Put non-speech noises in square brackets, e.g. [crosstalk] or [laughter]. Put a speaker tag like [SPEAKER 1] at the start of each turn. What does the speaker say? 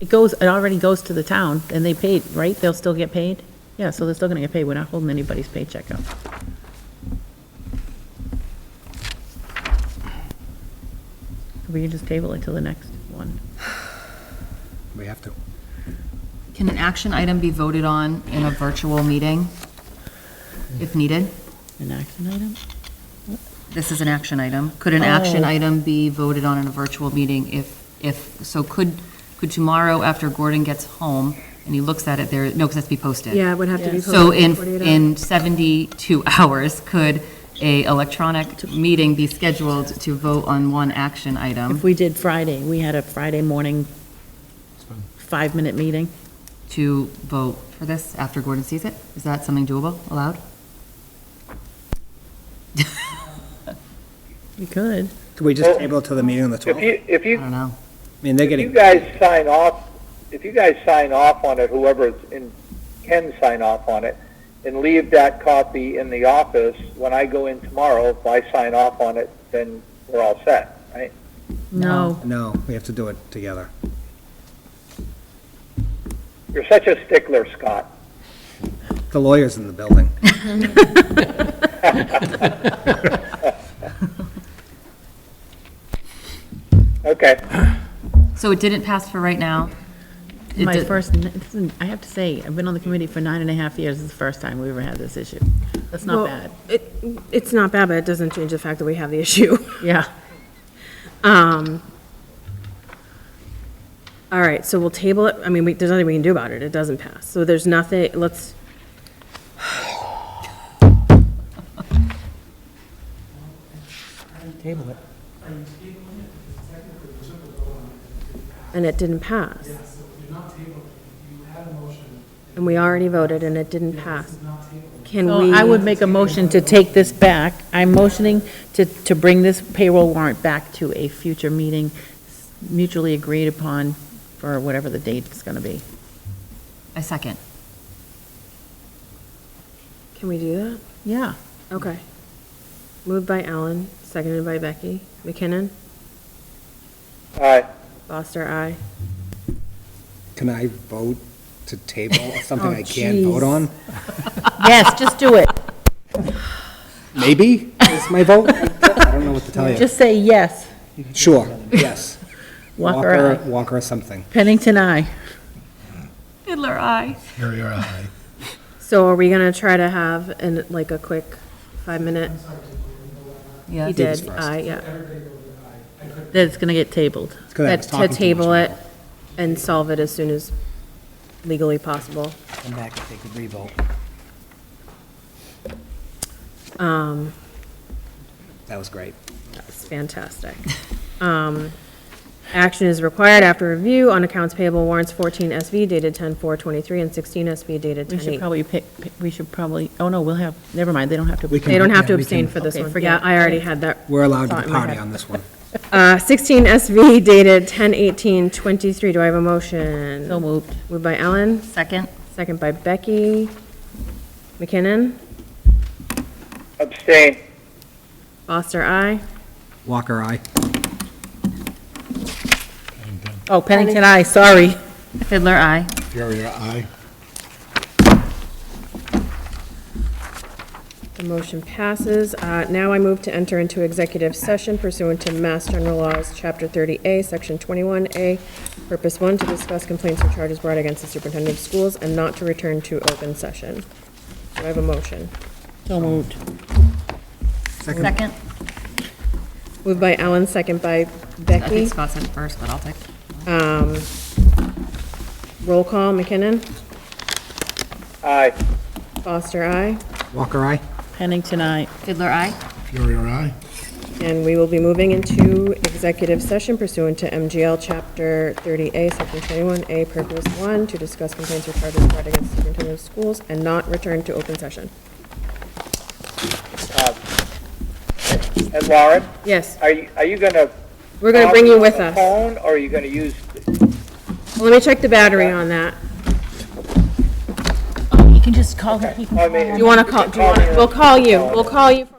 [SPEAKER 1] it goes, it already goes to the town, and they paid, right? They'll still get paid? Yeah, so they're still gonna get paid, we're not holding anybody's paycheck up. We can just table it till the next one.
[SPEAKER 2] We have to.
[SPEAKER 3] Can an action item be voted on in a virtual meeting if needed?
[SPEAKER 1] An action item?
[SPEAKER 3] This is an action item. Could an action
[SPEAKER 1] Oh.
[SPEAKER 3] item be voted on in a virtual meeting if, if, so could, could tomorrow after Gordon gets home and he looks at it there, no, because that's to be posted.
[SPEAKER 4] Yeah, it would have to be.
[SPEAKER 3] So
[SPEAKER 4] posted
[SPEAKER 3] in,
[SPEAKER 4] 48 hours.
[SPEAKER 3] in 72 [laughs] hours, could a electronic meeting be scheduled to vote on one action
[SPEAKER 1] If
[SPEAKER 3] item
[SPEAKER 1] we did Friday, we had a Friday morning five-minute meeting.
[SPEAKER 3] to vote for this after Gordon sees it? Is that something doable, allowed?
[SPEAKER 1] We could.
[SPEAKER 2] Can we just table it till the meeting on the
[SPEAKER 5] If
[SPEAKER 2] 12th?
[SPEAKER 5] you, if
[SPEAKER 3] I
[SPEAKER 5] you,
[SPEAKER 3] don't know.
[SPEAKER 2] I mean, they're
[SPEAKER 5] if you
[SPEAKER 2] getting,
[SPEAKER 5] guys sign off, if you guys sign off on it, whoever in, can sign off on it, and leave that copy in the office, when I go in tomorrow, if I sign off on it, then we're all set, right?
[SPEAKER 1] No.
[SPEAKER 2] no, we have to do it together.
[SPEAKER 5] You're such a stickler, Scott.
[SPEAKER 2] The lawyer's in the building.
[SPEAKER 5] Okay.
[SPEAKER 3] So it didn't pass for right now? It
[SPEAKER 1] My
[SPEAKER 3] did-
[SPEAKER 1] first, I have to say, I've been on the committee for nine and a half years, it's the first time we ever had this issue. That's not
[SPEAKER 4] Well,
[SPEAKER 1] bad,
[SPEAKER 4] It, it's not bad, but it doesn't change the fact that we have the issue.
[SPEAKER 1] yeah.
[SPEAKER 4] Um, all right, so we'll table it, I mean, we, there's nothing we can do about it, it doesn't pass, so there's nothing, let's. Table it. And it didn't pass. Yeah, so you're not tabling, you had a motion. And we already voted and it didn't pass. Can
[SPEAKER 1] So
[SPEAKER 4] we?
[SPEAKER 1] I would make a motion to take this back. I'm motioning to, to bring this payroll warrant back to a future meeting mutually agreed upon for whatever the date is going to be.
[SPEAKER 3] I second.
[SPEAKER 4] Can we do that?
[SPEAKER 1] Yeah.
[SPEAKER 4] Okay. Moved by Alan, seconded by Becky. McKinnon?
[SPEAKER 5] All right.
[SPEAKER 4] Foster, aye.
[SPEAKER 2] Can I vote to
[SPEAKER 4] [laughs]
[SPEAKER 2] table something
[SPEAKER 4] Oh,
[SPEAKER 2] I can't vote on?
[SPEAKER 1] Yes, just do it.
[SPEAKER 2] Maybe is my
[SPEAKER 4] [laughs]
[SPEAKER 2] vote? I don't know what to tell you.
[SPEAKER 1] Just say yes.
[SPEAKER 2] Sure, yes.
[SPEAKER 1] Walker, aye.
[SPEAKER 2] Walker or something.
[SPEAKER 1] Pennington, aye.
[SPEAKER 3] Fiddler eye.
[SPEAKER 4] So are we gonna try to have, an like, a quick five-minute?
[SPEAKER 3] Yeah.
[SPEAKER 4] He
[SPEAKER 2] David's
[SPEAKER 4] did,
[SPEAKER 2] first.
[SPEAKER 4] aye, yeah.
[SPEAKER 1] That it's going to get tabled.
[SPEAKER 2] It's 'cause I
[SPEAKER 4] That-
[SPEAKER 2] was talking too
[SPEAKER 4] To
[SPEAKER 2] much
[SPEAKER 4] table
[SPEAKER 2] about
[SPEAKER 4] it and solve it as soon as legally possible.
[SPEAKER 2] Come back and take a revote.
[SPEAKER 4] Um,
[SPEAKER 2] That was great.
[SPEAKER 4] That's
[SPEAKER 2] [laughs]
[SPEAKER 4] fantastic. Um, Action is required after review on accounts payable warrants 14 SV dated 10/4/23 and 16 SV dated
[SPEAKER 1] We should
[SPEAKER 4] 10/8.
[SPEAKER 1] probably pick, pick- we should probably, oh no, we'll have, never mind, they don't have to.
[SPEAKER 2] We can-
[SPEAKER 4] They don't have
[SPEAKER 2] Yeah,
[SPEAKER 4] to
[SPEAKER 2] we can-
[SPEAKER 4] abstain for this
[SPEAKER 1] Okay,
[SPEAKER 4] one.
[SPEAKER 1] forget
[SPEAKER 4] Yeah,
[SPEAKER 1] it.
[SPEAKER 4] I already had that.
[SPEAKER 2] We're allowed
[SPEAKER 4] thought
[SPEAKER 2] to
[SPEAKER 4] in my
[SPEAKER 2] party
[SPEAKER 4] head.
[SPEAKER 2] on this one.
[SPEAKER 4] Uh, 16 SV dated 10/18/23. Do I have a motion?
[SPEAKER 1] So moved.
[SPEAKER 4] Moved by Ellen,
[SPEAKER 3] Second.
[SPEAKER 4] second by Becky. McKinnon,
[SPEAKER 5] Abstain.
[SPEAKER 4] Foster, aye.
[SPEAKER 2] Walker, aye.
[SPEAKER 1] Oh, Pennington, aye, sorry.
[SPEAKER 3] Fiddler eye.
[SPEAKER 6] Furia, aye.
[SPEAKER 4] The motion passes. Uh, Now I move to enter into executive session pursuant to Mass General Laws, Chapter 30A, Section 21A, Purpose 1, to discuss complaints or charges brought against the superintendent of schools and not to return to open session. Do I have a motion?
[SPEAKER 1] So moved.
[SPEAKER 3] Second.
[SPEAKER 4] Moved by Ellen, second by
[SPEAKER 3] I think
[SPEAKER 4] Becky.
[SPEAKER 3] Scott said first, but I'll take. it.
[SPEAKER 4] Um, Roll call, McKinnon?
[SPEAKER 5] Aye.
[SPEAKER 4] Foster, aye.
[SPEAKER 2] Walker, aye.
[SPEAKER 1] Pennington, aye.
[SPEAKER 3] Fiddler eye.
[SPEAKER 6] Furia, aye.
[SPEAKER 4] And we will be moving into executive session pursuant to MGL Chapter 30A, Section 21A, Purpose 1, to discuss complaints or charges brought against the superintendent of schools and not return to open session.
[SPEAKER 5] And Lauren,
[SPEAKER 4] Yes,
[SPEAKER 5] are you, are you gonna?
[SPEAKER 4] we're going to bring you with
[SPEAKER 5] on the
[SPEAKER 4] us.
[SPEAKER 5] Phone, or are you gonna use,
[SPEAKER 4] Let me check the battery on that.
[SPEAKER 1] You can just call her, you can
[SPEAKER 5] I mean.
[SPEAKER 4] You want to call, do you want, we'll call you, we'll call you.